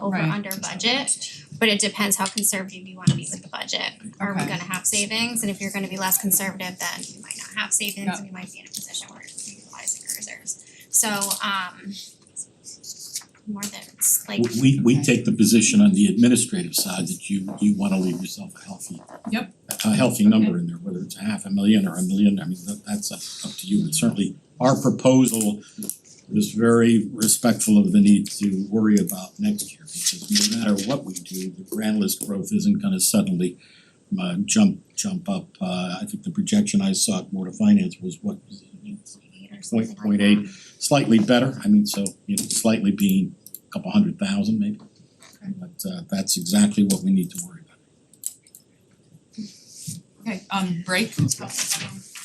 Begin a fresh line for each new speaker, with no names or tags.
over
Right.
under budget, but it depends how conservative you wanna be with the budget. Are we
Okay.
gonna have savings? And if you're gonna be less conservative, then you might not have savings and you might be in a position where you're utilizing your reserves. So um more than it's like
W- We we
Okay.
take the position on the administrative side that you you wanna leave yourself a healthy.
Yep.
A healthy number in there, whether it's a half a million or a million, I mean, that that's up up to you, but certainly our proposal was very respectful of the need to worry about next year, because no matter what we do, the grand list growth isn't gonna suddenly uh jump jump up, uh I think the projection I saw at Board of Finance was what was it,
eight or something
point
like
point
that.
eight, slightly better, I mean, so you know, slightly being a couple hundred thousand maybe. But uh that's exactly what we need to worry about.
Okay, um break.